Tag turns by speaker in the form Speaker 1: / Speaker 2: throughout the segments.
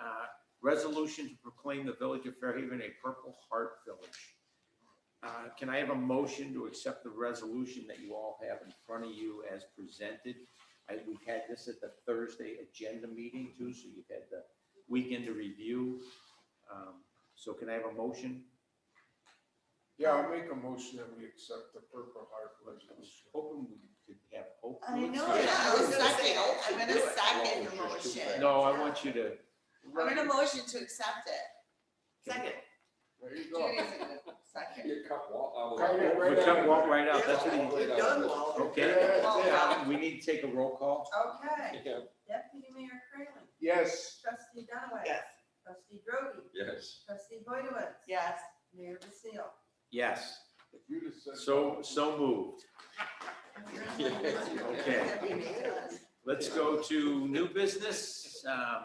Speaker 1: uh, Resolution to proclaim the Village of Fairhaven a Purple Heart Village. Uh, Can I have a motion to accept the resolution that you all have in front of you as presented? I, we had this at the Thursday agenda meeting too, so you've had the weekend to review. Um, So can I have a motion?
Speaker 2: Yeah, I'll make a motion that we accept the Purple Heart resolution.
Speaker 1: Hoping we could have hope.
Speaker 3: I know,
Speaker 4: Yeah,
Speaker 3: I was gonna say, oh.
Speaker 4: Second.
Speaker 3: I'm
Speaker 4: Do
Speaker 3: gonna
Speaker 4: it.
Speaker 3: second the
Speaker 4: Well, it's just too
Speaker 3: motion.
Speaker 1: No, I want you to.
Speaker 3: I'm gonna motion to accept it.
Speaker 4: Second.
Speaker 2: There you go.
Speaker 3: Judy's gonna second.
Speaker 5: Your cup wall.
Speaker 2: Cut it right
Speaker 1: We can walk right out, that's what he.
Speaker 5: Walk right out.
Speaker 4: Done, Walter.
Speaker 1: Okay,
Speaker 2: Yeah, yeah.
Speaker 1: we need to take a roll call.
Speaker 3: Okay,
Speaker 5: Yeah,
Speaker 3: Deputy Mayor Craylon,
Speaker 2: Yes,
Speaker 3: Trustee Dunaway.
Speaker 4: Yes.
Speaker 3: Trustee Drogi,
Speaker 5: Yes.
Speaker 3: Trustee Boydowitz.
Speaker 4: Yes.
Speaker 3: Mayor Vassil.
Speaker 1: Yes,
Speaker 2: if you'd have said.
Speaker 1: so, so moved. Okay. Let's go to new business. Um,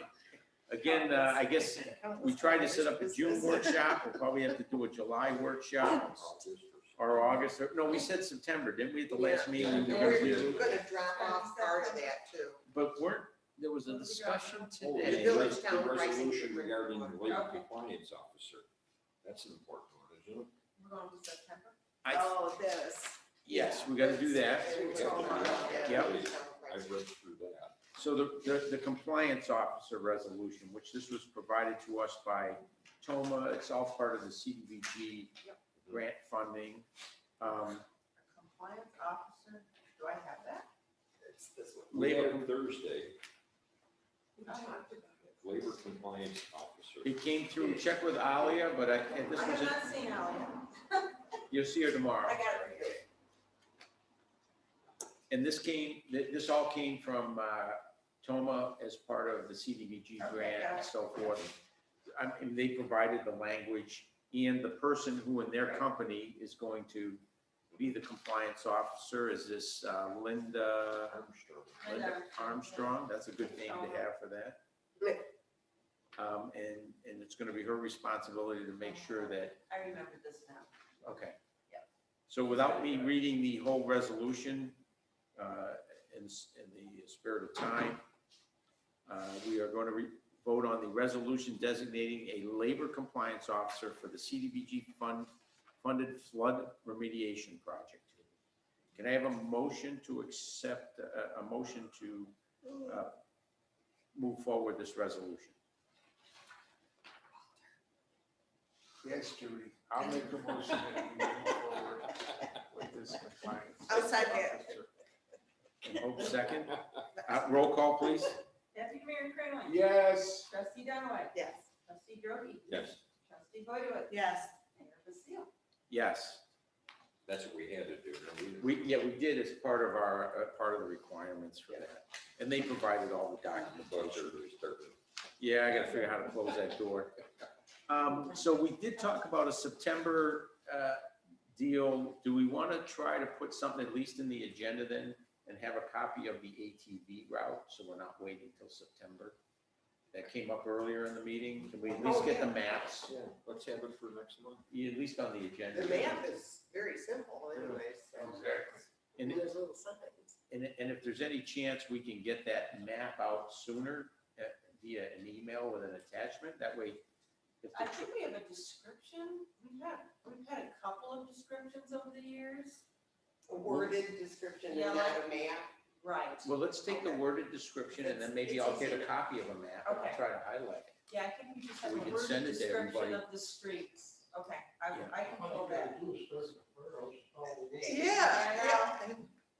Speaker 1: Again, uh, I guess we tried to set up a June workshop, we'll probably have to do a July workshop or August, or, no, we said September, didn't we, at the last meeting? we were gonna do-
Speaker 4: Gonna drop off part of that too.
Speaker 1: But weren't, there was a discussion
Speaker 4: The
Speaker 1: today.
Speaker 4: village
Speaker 5: The
Speaker 4: town pricing
Speaker 5: resolution
Speaker 4: difference.
Speaker 5: regarding the legal
Speaker 3: Okay.
Speaker 5: compliance officer. That's an important one, isn't it?
Speaker 3: We're going to September?
Speaker 1: I-
Speaker 4: Oh, this.
Speaker 1: Yes, we gotta do that. Yep.
Speaker 5: I read through that.
Speaker 1: So the, the, the compliance officer resolution, which this was provided to us by Toma, it's all part of the CDBG
Speaker 3: Yep.
Speaker 1: grant funding. Um,
Speaker 3: Compliance officer, do I have that?
Speaker 5: We had
Speaker 1: Labor-
Speaker 5: it Thursday,
Speaker 3: I
Speaker 5: labor compliance officer.
Speaker 1: It came through, check with Alia, but I, and this
Speaker 3: have
Speaker 1: was, it.
Speaker 3: not seen it all yet.
Speaker 1: you'll see her
Speaker 3: I
Speaker 1: tomorrow.
Speaker 3: got it right here.
Speaker 1: And this came, th- this all came from uh, Toma as part of the CDBG
Speaker 3: Okay,
Speaker 1: grant
Speaker 3: got
Speaker 1: and
Speaker 3: it.
Speaker 1: so forth. I mean, they provided the language and the person who in their company is going to be the compliance officer is this uh, Linda
Speaker 5: Armstrong.
Speaker 1: Linda Armstrong. That's a good name to have for that.
Speaker 4: Yeah.
Speaker 1: Um, And, and it's going to be her responsibility to make sure that,
Speaker 3: I remember this now.
Speaker 1: okay.
Speaker 3: Yeah.
Speaker 1: So without me reading the whole resolution, uh, in, s- in the spirit of time, uh, we are going to re- vote on the resolution designating a labor compliance officer for the CDBG fund, funded flood remediation project. Can I have a motion to accept, a, a motion to uh, move forward this resolution?
Speaker 2: Yes, Judy, I'll make a motion that we move forward with this compliance.
Speaker 4: I'll second.
Speaker 2: officer.
Speaker 1: And Hope second. Uh, Roll call, please.
Speaker 3: Deputy Mayor Craylon.
Speaker 2: Yes,
Speaker 3: Trustee Dunaway.
Speaker 4: Yes.
Speaker 3: Trustee Drogi.
Speaker 5: Yes,
Speaker 3: Trustee Boydowitz.
Speaker 4: Yes.
Speaker 3: Mayor Vassil.
Speaker 1: Yes.
Speaker 5: that's what we had to do. and
Speaker 1: We, yeah, we did as part of our, uh, part of the requirements for that. And they provided all the
Speaker 5: The buzzer
Speaker 1: documentation.
Speaker 5: is thirty.
Speaker 1: Yeah, I gotta figure out how to close that door. Um, So we did talk about a September uh, deal. Do we want to try to put something at least in the agenda then? And have a copy of the ATV route, so we're not waiting till September? That came up earlier in the meeting. Can we at least get the maps,
Speaker 5: Yeah, let's have it for next month.
Speaker 1: at least on the agenda?
Speaker 4: The map is very simple anyways.
Speaker 2: Exactly.
Speaker 1: And-
Speaker 4: There's little signs.
Speaker 1: And, and if there's any chance we can get that map out sooner uh, via an email with an attachment, that way. if
Speaker 3: I
Speaker 1: the tr-
Speaker 3: think we have a description. We've had, we've had a couple of descriptions over the years.
Speaker 4: A worded description and
Speaker 3: Yeah,
Speaker 4: not
Speaker 3: like-
Speaker 4: a map.
Speaker 3: Right.
Speaker 1: Well, let's take the worded description and then maybe I'll get a copy of a map and I'll
Speaker 3: Okay.
Speaker 1: try to highlight it.
Speaker 3: Yeah, I think we just have
Speaker 1: We
Speaker 3: a
Speaker 1: can
Speaker 3: word
Speaker 1: send it to
Speaker 3: description
Speaker 1: everybody.
Speaker 3: of the streets. Okay, I,
Speaker 1: Yeah.
Speaker 3: I can go back.
Speaker 4: Yeah,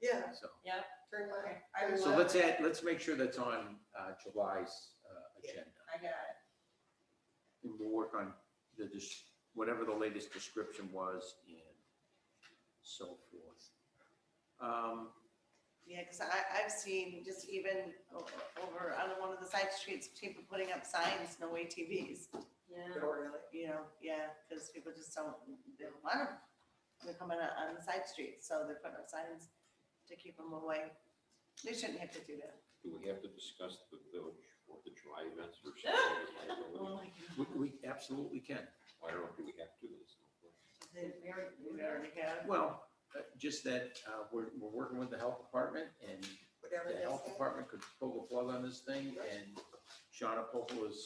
Speaker 4: yeah, yeah,
Speaker 1: So,
Speaker 4: turn
Speaker 3: Okay,
Speaker 4: left.
Speaker 3: I will,
Speaker 1: so
Speaker 3: uh,
Speaker 1: let's add, let's make sure that's on uh, July's uh, agenda.
Speaker 3: I got it.
Speaker 1: And we'll work on the, dis- whatever the latest description was and so forth. Um,
Speaker 4: Yeah, because I, I've seen just even o- over on one of the side streets, people putting up signs, no ATVs.
Speaker 3: Yeah.
Speaker 4: Or, you know, yeah, because people just don't, they don't want them. They're coming out on the side streets, so they're putting up signs to keep them away. They shouldn't have to do that.
Speaker 5: Do we have to discuss the village or the July events or something?
Speaker 4: Oh my
Speaker 1: We, we absolutely can.
Speaker 5: I don't know, do we have to do this?
Speaker 3: We already-
Speaker 4: We already have.
Speaker 1: Well, uh, just that uh, we're, we're working with the health department and
Speaker 4: Whatever
Speaker 1: the
Speaker 4: they
Speaker 1: health
Speaker 4: say.
Speaker 1: department could pull the plug on this thing and Shauna Popel is